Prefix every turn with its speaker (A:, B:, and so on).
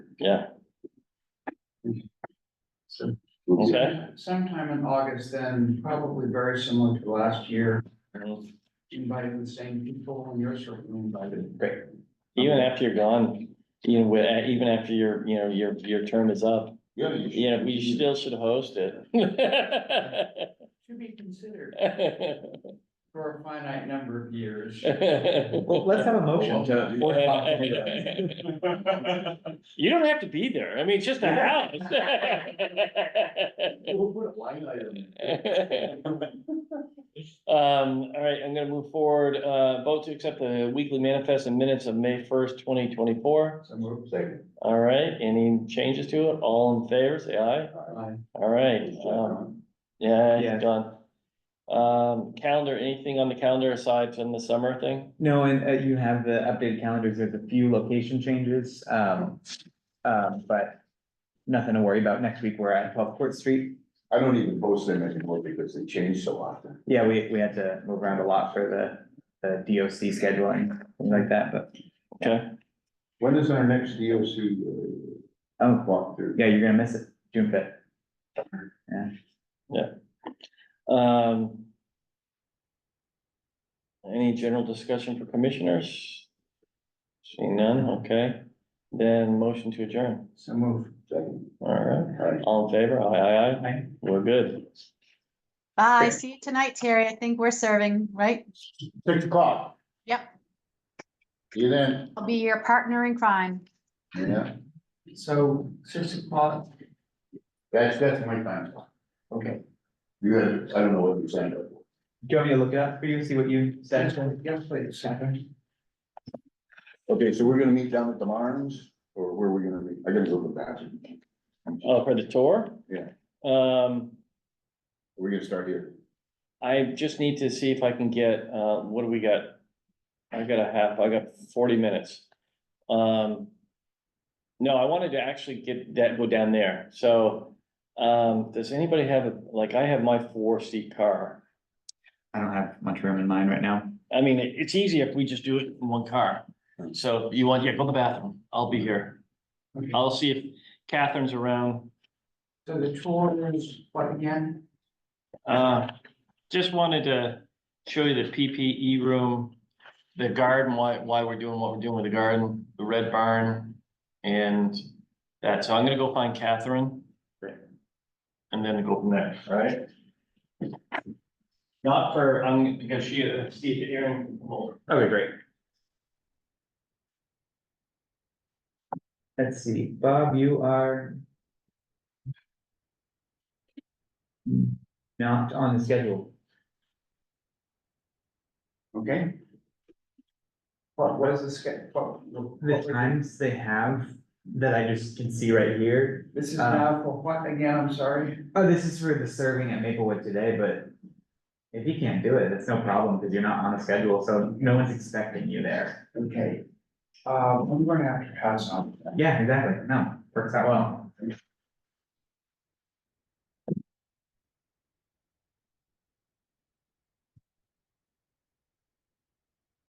A: yeah, okay.
B: Sometime in August, then probably very similar to last year,
A: Mhm.
B: inviting the same people and you're certainly invited.
A: Great. Even after you're gone, you know, with- uh, even after your, you know, your, your term is up,
C: Yeah. you
A: you know, we
C: should-
A: still should host it.
B: To be considered for a finite number of years.
D: Well, let's have a motion to.
A: You don't have to be there, I mean, it's just a house.
C: We'll put a line item.
A: Um, all right, I'm gonna move forward, uh, vote to accept the weekly manifest and minutes of May first, twenty twenty-four.
B: So move second.
A: All right, any changes to it? All in favor, say aye.
B: Aye.
A: All right, um, yeah,
D: Yeah.
A: it's done. Um, calendar, anything on the calendar aside from the summer thing?
D: No, and uh, you have the updated calendars, there's a few location changes, um, um, but nothing to worry about, next week we're at twelve Court Street.
C: I don't even post them anymore because they change so often.
D: Yeah, we, we had to move around a lot for the, the DOC scheduling, things like that, but,
A: Okay,
C: When is our next DOC
D: oh, well,
C: walkthrough?
D: yeah, you're gonna miss it, June fifth.
A: um. Any general discussion for commissioners? Seeing none, okay, then motion to adjourn,
B: So move.
C: Second.
A: all right,
C: All right.
A: all in favor, aye, aye, aye,
B: Aye.
A: we're good.
E: Bye,
C: Great.
E: see you tonight, Terry. I think we're serving, right?
C: Six o'clock.
E: Yep.
C: See you then,
E: I'll be your partner in crime.
C: yeah,
B: So six o'clock,
C: that's, that's my time.
B: okay.
C: You had, I don't know what you signed up for.
D: Do you want me to look it up for you, see what you said?
B: Yes, please, second.
C: Okay, so we're gonna meet down at the Marnes, or where are we gonna meet? I gotta go to the bathroom.
A: Oh, for the tour?
C: Yeah.
A: Um,
C: We're gonna start here.
A: I just need to see if I can get, uh, what do we got? I got a half, I got forty minutes. Um. No, I wanted to actually get that, go down there, so, um, does anybody have, a like, I have my four seat car.
D: I don't have much room in mind right now.
A: I mean, it- it's easier if we just do it in one car, so you want, yeah, go to the bathroom, I'll be here.
B: Hmm. Okay.
A: I'll see if Catherine's around,
B: So the tour is what again?
A: Uh, just wanted to show you the PPE room, the garden, why, why we're doing what we're doing with the garden, the red barn. And that, so I'm gonna go find Catherine. And then go from there, all right? Not for, um, because she, uh, Steve, Aaron, well,
D: Okay, great. Let's see, Bob, you are. Not on the schedule.
B: Okay. What, what is the schedule? What-
D: The times they have that I just can see right here.
B: This is now for what again, I'm sorry?
D: Oh, this is for the serving at Maplewood today, but. If you can't do it, it's no problem because you're not on the schedule, so no one's expecting you there.
B: Uh, Okay. Um, I'm gonna have to pass on.
D: Yeah, exactly. No, works out well.